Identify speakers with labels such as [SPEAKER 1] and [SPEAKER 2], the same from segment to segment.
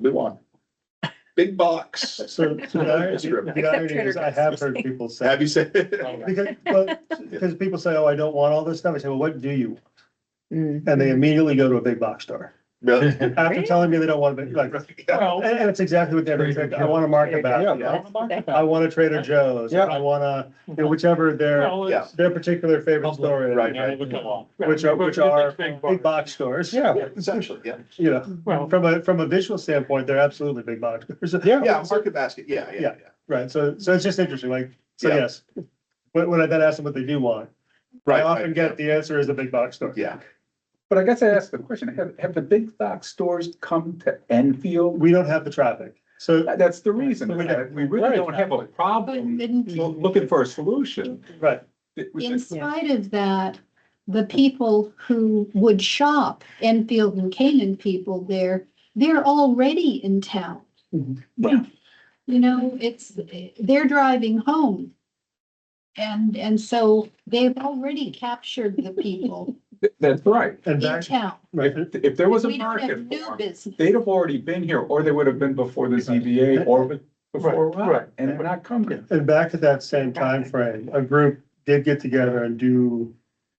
[SPEAKER 1] we want. Big box.
[SPEAKER 2] So, so the irony,
[SPEAKER 1] Script.
[SPEAKER 2] the irony
[SPEAKER 3] Except
[SPEAKER 2] is I
[SPEAKER 3] Trader
[SPEAKER 2] have heard people say.
[SPEAKER 1] Have you said?
[SPEAKER 2] Because, but, because people say, oh, I don't want all this stuff. I say, well, what do you? want?"
[SPEAKER 3] Mm.
[SPEAKER 2] And they immediately go to a big box store.
[SPEAKER 1] Really?
[SPEAKER 2] After telling me they don't want a big, like, and,
[SPEAKER 4] Well,
[SPEAKER 2] and it's exactly what they're,
[SPEAKER 4] Trader
[SPEAKER 2] I want a market
[SPEAKER 4] yeah,
[SPEAKER 2] basket.
[SPEAKER 4] that's the
[SPEAKER 2] I
[SPEAKER 4] thing.
[SPEAKER 2] want a Trader Joe's.
[SPEAKER 4] Yeah.
[SPEAKER 2] I want a, you know, whichever their,
[SPEAKER 4] Well,
[SPEAKER 1] Yeah.
[SPEAKER 4] it's-
[SPEAKER 2] their particular favorite
[SPEAKER 4] Public,
[SPEAKER 2] store is.
[SPEAKER 1] right,
[SPEAKER 4] yeah, it would come along.
[SPEAKER 2] Which are-
[SPEAKER 4] But
[SPEAKER 2] which
[SPEAKER 4] it's like
[SPEAKER 2] are
[SPEAKER 4] big
[SPEAKER 2] Big
[SPEAKER 4] box.
[SPEAKER 2] box stores.
[SPEAKER 4] Yeah,
[SPEAKER 1] Yeah, Essentially, yeah.
[SPEAKER 2] You know,
[SPEAKER 4] well,
[SPEAKER 2] from a, from a visual standpoint, they're absolutely big box stores.
[SPEAKER 4] yeah,
[SPEAKER 1] Yeah, market basket, yeah, yeah, yeah.
[SPEAKER 2] Right, so, so it's just interesting, like, so
[SPEAKER 1] Yeah.
[SPEAKER 2] yes, when, when I then ask them what they do want, I
[SPEAKER 1] Right,
[SPEAKER 2] often
[SPEAKER 1] right,
[SPEAKER 2] get the answer is a big box store.
[SPEAKER 1] Yeah,
[SPEAKER 5] But I guess I asked the question, have, have the big box stores come to Enfield?
[SPEAKER 2] We don't have the traffic, so,
[SPEAKER 5] That- That's the reason, is that we really don't have a problem looking for a solution.
[SPEAKER 2] right,
[SPEAKER 5] It was-
[SPEAKER 6] In spite of that, the people who would shop, Enfield and Canaan people there, they're already in town.
[SPEAKER 2] Mhm.
[SPEAKER 5] Yeah.
[SPEAKER 6] You know, it's, they're driving home. And, and so they've already captured the people
[SPEAKER 5] That's right.
[SPEAKER 2] and
[SPEAKER 6] in
[SPEAKER 2] back,
[SPEAKER 6] town.
[SPEAKER 2] right,
[SPEAKER 5] If, if there was a
[SPEAKER 6] We don't have
[SPEAKER 5] market for
[SPEAKER 6] new
[SPEAKER 5] 'em,
[SPEAKER 6] business.
[SPEAKER 5] they'd have already been here, or they would have been before the ZBA or be- before
[SPEAKER 4] Right, right.
[SPEAKER 5] Rob, and they're not coming.
[SPEAKER 2] and back at that same time frame, a group did get together and do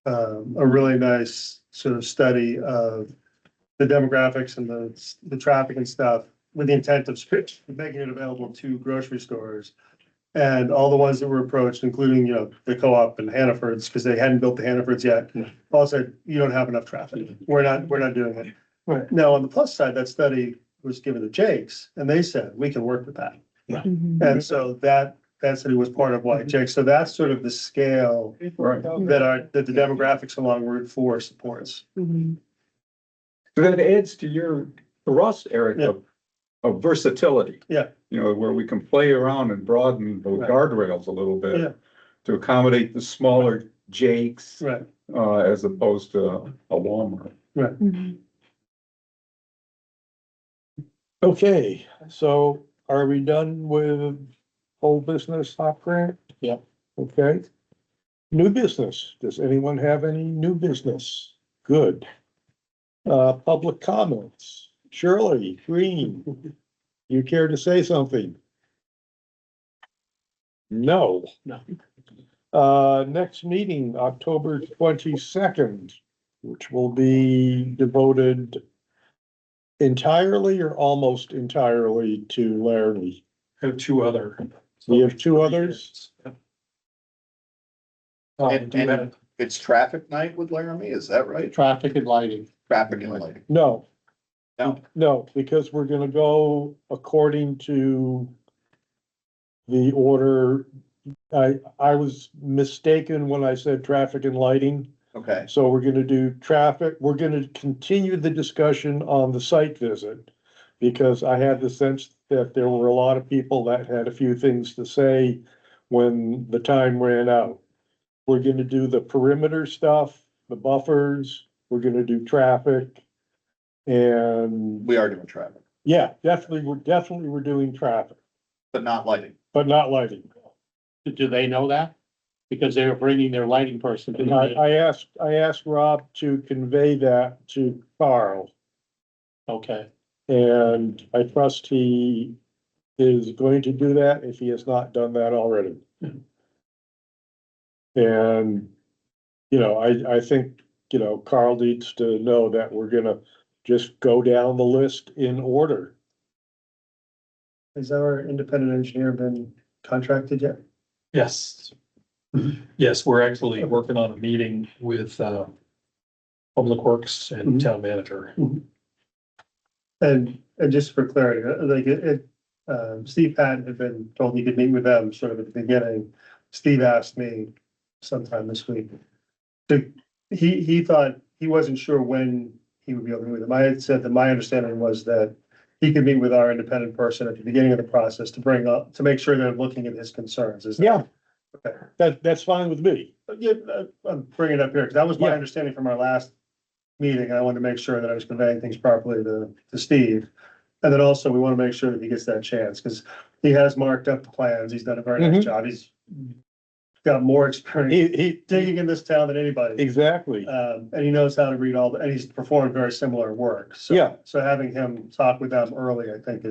[SPEAKER 2] um, a really nice sort of study of the demographics and the, the traffic and stuff with the intent of sp- making it available to grocery stores. And all the ones that were approached, including, you know, the co-op and Hannaford's, because they hadn't built the Hannaford's yet,
[SPEAKER 1] Yeah.
[SPEAKER 2] all said, you don't have enough traffic. We're not, we're not doing it.
[SPEAKER 4] Right.
[SPEAKER 2] Now, on the plus side, that study was given to Jake's and they said, we can work with that. And so that, that city was part of White Jake. So that's sort of the scale
[SPEAKER 5] Right.
[SPEAKER 2] that are, that the demographics along Route Four supports.
[SPEAKER 5] So that adds to your thrust, Eric, of, of versatility.
[SPEAKER 2] Yeah.
[SPEAKER 5] You know, where we can play around and broaden the
[SPEAKER 2] Right.
[SPEAKER 5] guardrails a little
[SPEAKER 2] Yeah.
[SPEAKER 5] bit to accommodate the smaller Jakes,
[SPEAKER 2] Right.
[SPEAKER 5] uh, as opposed to a Walmart.
[SPEAKER 4] okay, so are we done with whole business hop grant?
[SPEAKER 1] Yeah.
[SPEAKER 4] Okay. New business, does anyone have any new business? Good. Uh, public comments, Shirley Green, you care to say something? No. No. Uh, next meeting, October twenty-second, which will be devoted entirely or almost entirely to Larry.
[SPEAKER 5] Have two other.
[SPEAKER 4] We have two others. Oh,
[SPEAKER 1] And- and- it's traffic night with Laramie, is that right?
[SPEAKER 4] Traffic and lighting.
[SPEAKER 1] Traffic and lighting,
[SPEAKER 4] No.
[SPEAKER 1] No.
[SPEAKER 4] No, because we're gonna go according to the order. I, I was mistaken when I said traffic and lighting.
[SPEAKER 1] okay,
[SPEAKER 4] So we're gonna do traffic, we're gonna continue the discussion on the site visit. Because I had the sense that there were a lot of people that had a few things to say when the time ran out. We're gonna do the perimeter stuff, the buffers, we're gonna do traffic. And,
[SPEAKER 1] we are doing traffic,
[SPEAKER 4] yeah, definitely, we're definitely, we're doing traffic,
[SPEAKER 1] but not lighting.
[SPEAKER 4] but not lighting.
[SPEAKER 7] Do they know that? Because they were bringing their lighting person. to the
[SPEAKER 4] And I,
[SPEAKER 7] meeting.
[SPEAKER 4] I asked, I asked Rob to convey that to Carl.
[SPEAKER 7] Okay,
[SPEAKER 4] And I trust he is going to do that if he has not done that already. And, you know, I, I think, you know, Carl needs to know that we're gonna just go down the list in order.
[SPEAKER 2] Has our independent engineer been contracted yet?
[SPEAKER 8] Yes. Yes, we're actually working on a meeting with uh, Public Works and
[SPEAKER 4] Mm-hmm.
[SPEAKER 2] Mhm.
[SPEAKER 8] Town Manager.
[SPEAKER 2] And, and just for clarity, uh, like it, it, um, Steve Patton had been told he could meet with them sort of at the beginning. Steve asked me sometime this week. To, he, he thought, he wasn't sure when he would be able to meet with them. I had said that my understanding was that he could meet with our independent person at the beginning of the process to bring up, to make sure they're looking at his concerns. Is that-
[SPEAKER 4] Yeah.
[SPEAKER 2] Okay.
[SPEAKER 4] That, that's fine with me.
[SPEAKER 2] Yeah, uh, I'm bringing it up here, because that was my
[SPEAKER 4] Yeah.
[SPEAKER 2] understanding from our last meeting, and I wanted to make sure that I was conveying things properly to, to Steve. And then also, we want to make sure that he gets that chance, because he has marked up the plans, he's done a very nice job, he's got more experience
[SPEAKER 4] Mm-hmm. He, he,
[SPEAKER 2] digging in this town than anybody.
[SPEAKER 4] exactly.
[SPEAKER 2] Um, and he knows how to read all, the and he's performed very similar work. So-
[SPEAKER 4] Yeah.
[SPEAKER 2] So having him talk with them early, I think, is